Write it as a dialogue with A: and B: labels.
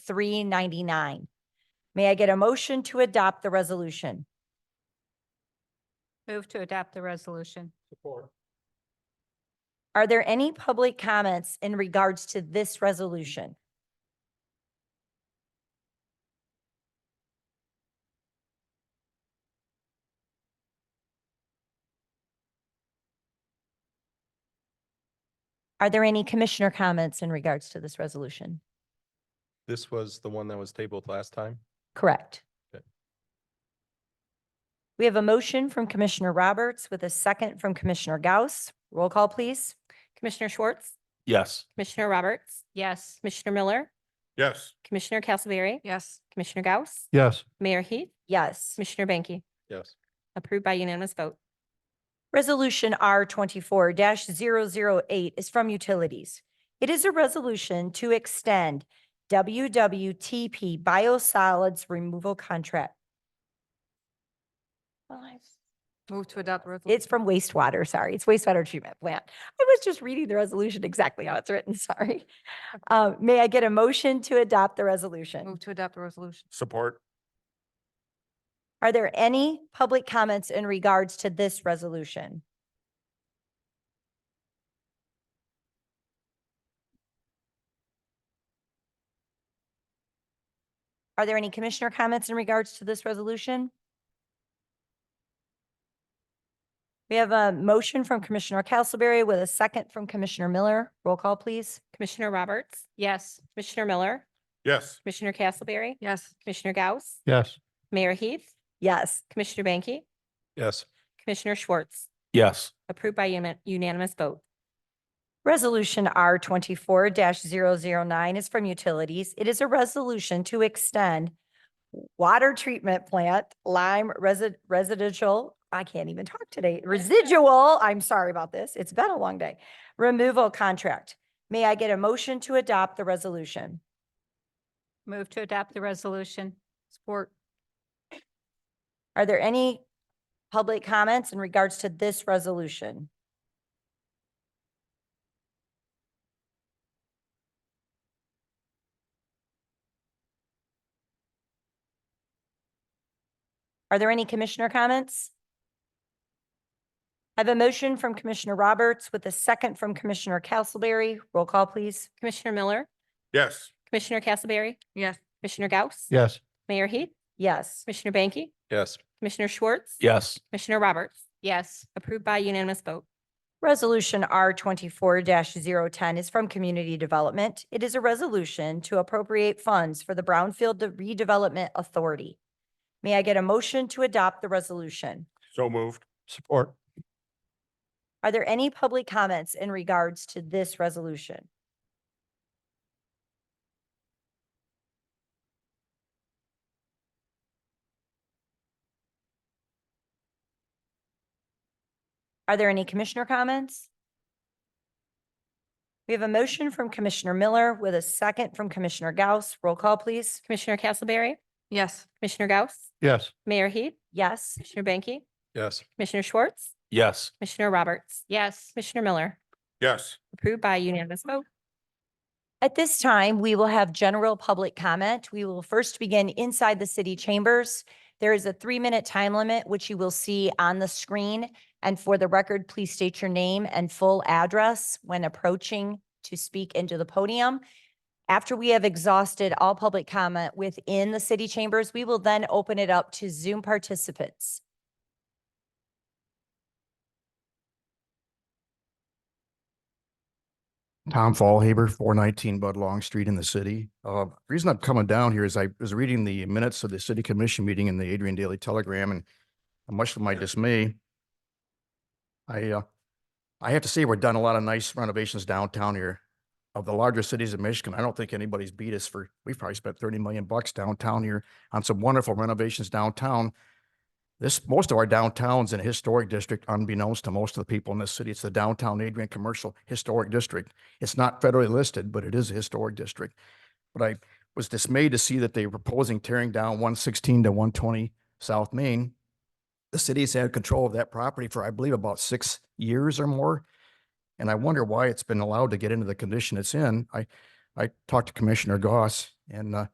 A: three ninety-nine. May I get a motion to adopt the resolution?
B: Move to adopt the resolution.
C: Support.
A: Are there any public comments in regards to this resolution? Are there any commissioner comments in regards to this resolution?
C: This was the one that was tabled last time?
A: Correct.
C: Okay.
A: We have a motion from Commissioner Roberts with a second from Commissioner Gauss. Roll call, please.
D: Commissioner Schwartz,
E: Yes.
D: Commissioner Roberts,
B: Yes.
D: Commissioner Miller,
E: Yes.
D: Commissioner Castleberry,
B: Yes.
D: Commissioner Gauss,
E: Yes.
D: Mayor Heath,
A: Yes.
D: Commissioner Banky,
C: Yes.
D: approved by unanimous vote.
A: Resolution R twenty-four 8 is from Utilities. It is a resolution to extend WWTP biosolids removal contract.
B: Move to adopt resolution.
A: It's from wastewater, sorry. It's wastewater treatment plant. I was just reading the resolution exactly how it's written, sorry. Uh, may I get a motion to adopt the resolution?
B: Move to adopt the resolution.
E: Support.
A: Are there any public comments in regards to this resolution? Are there any commissioner comments in regards to this resolution? We have a motion from Commissioner Castleberry with a second from Commissioner Miller. Roll call, please.
D: Commissioner Roberts,
B: Yes.
D: Commissioner Miller,
E: Yes.
D: Commissioner Castleberry,
B: Yes.
D: Commissioner Gauss,
E: Yes.
D: Mayor Heath,
A: Yes.
D: Commissioner Banky,
C: Yes.
D: Commissioner Schwartz,
E: Yes.
D: approved by uni- unanimous vote.
A: Resolution R twenty-four 9 is from Utilities. It is a resolution to extend water treatment plant Lime resi- residential, I can't even talk today, residual, I'm sorry about this, it's been a long day, removal contract. May I get a motion to adopt the resolution?
B: Move to adopt the resolution. Support.
A: Are there any public comments in regards to this resolution? Are there any commissioner comments? I have a motion from Commissioner Roberts with a second from Commissioner Castleberry. Roll call, please.
D: Commissioner Miller,
E: Yes.
D: Commissioner Castleberry,
B: Yes.
D: Commissioner Gauss,
E: Yes.
D: Mayor Heath,
A: Yes.
D: Commissioner Banky,
C: Yes.
D: Commissioner Schwartz,
E: Yes.
D: Commissioner Roberts,
B: Yes.
D: approved by unanimous vote.
A: Resolution R twenty-four 10 is from Community Development. It is a resolution to appropriate funds for the Brownfield Redevelopment Authority. May I get a motion to adopt the resolution?
E: So moved. Support.
A: Are there any public comments in regards to this resolution? Are there any commissioner comments? We have a motion from Commissioner Miller with a second from Commissioner Gauss. Roll call, please.
D: Commissioner Castleberry,
B: Yes.
D: Commissioner Gauss,
E: Yes.
D: Mayor Heath,
A: Yes.
D: Commissioner Banky,
C: Yes.
D: Commissioner Schwartz,
E: Yes.
D: Commissioner Roberts,
B: Yes.
D: Commissioner Miller,
E: Yes.
D: approved by unanimous vote.
A: At this time, we will have general public comment. We will first begin inside the city chambers. There is a three-minute time limit, which you will see on the screen. And for the record, please state your name and full address when approaching to speak into the podium. After we have exhausted all public comment within the city chambers, we will then open it up to Zoom participants.
F: Tom Fallhaber, four nineteen Bud Long Street in the city. Uh, the reason I'm coming down here is I was reading the minutes of the city commission meeting in the Adrian Daily Telegram and much to my dismay, I, uh, I have to say we're done a lot of nice renovations downtown here. Of the larger cities in Michigan, I don't think anybody's beat us for, we've probably spent thirty million bucks downtown here on some wonderful renovations downtown. This, most of our downtown's in a historic district unbeknownst to most of the people in this city. It's the downtown Adrian Commercial Historic District. It's not federally listed, but it is a historic district. But I was dismayed to see that they were proposing tearing down one sixteen to one twenty South Main. The city's had control of that property for, I believe, about six years or more. And I wonder why it's been allowed to get into the condition it's in. I, I talked to Commissioner Goss and, uh,